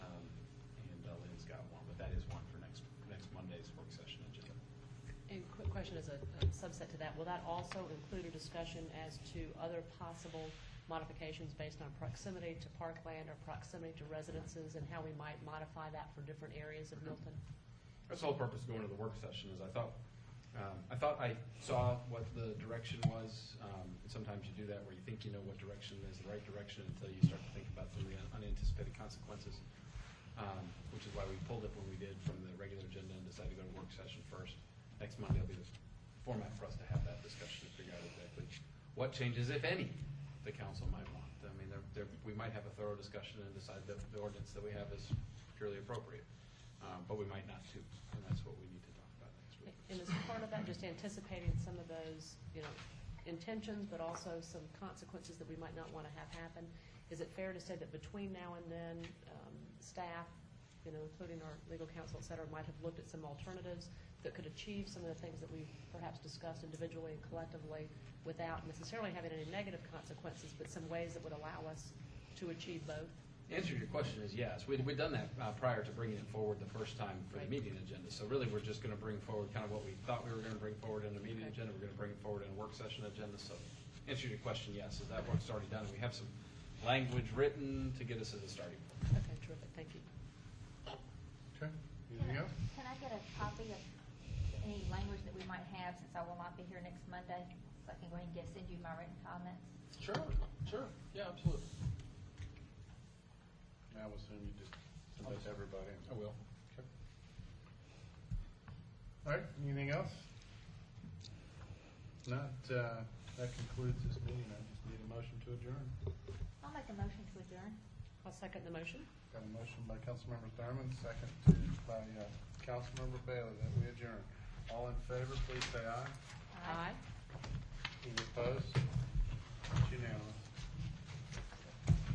Um, uh, question as a a subset to that, will that also include a discussion as to other possible modifications based on proximity to parkland or proximity to residences and how we might modify that for different areas of Milton? That's the whole purpose of going to the work session, is I thought, um, I thought I saw what the direction was. Um, and sometimes you do that where you think you know what direction is the right direction until you start to think about some of the unanticipated consequences. Um, which is why we pulled it when we did from the regular agenda and decided to go to work session first. Next Monday will be the format for us to have that discussion to figure out exactly what changes, if any, the council might want. I mean, there, there, we might have a thorough discussion and decide that the ordinance that we have is purely appropriate. Um, but we might not too, and that's what we need to talk about next week. And as part of that, just anticipating some of those, you know, intentions, but also some consequences that we might not want to have happen. Is it fair to say that between now and then, um, staff, you know, including our legal counsel, et cetera, might have looked at some alternatives that could achieve some of the things that we perhaps discussed individually and collectively without necessarily having any negative consequences, but some ways that would allow us to achieve both? The answer to your question is yes. We'd, we'd done that uh, prior to bringing it forward the first time for the Right. meeting agenda. So really, we're just going to bring forward kind of what we thought we were going to bring forward in the meeting Okay. agenda. We're going to bring it forward in a work session agenda. So answer to your question, yes, is that work's already done. We have some language written to get us as a starting point. Okay, terrific, thank you. Okay, Can anything I- else? Can I get a copy of any language that we might have, since I will not be here next Monday, so I can go ahead and get, send you my written comments? Sure, sure. Yeah, absolutely. I will assume you just send that to everybody. I will. Okay. All right, anything else? Not, uh, that concludes this meeting. I just need a motion to adjourn. I'll make a motion to adjourn. I'll second the motion. Got a motion by Councilmember Thurman, second to- by uh, Councilmember Bailey that we adjourn. All in favor, please say aye. Aye. Any opposed?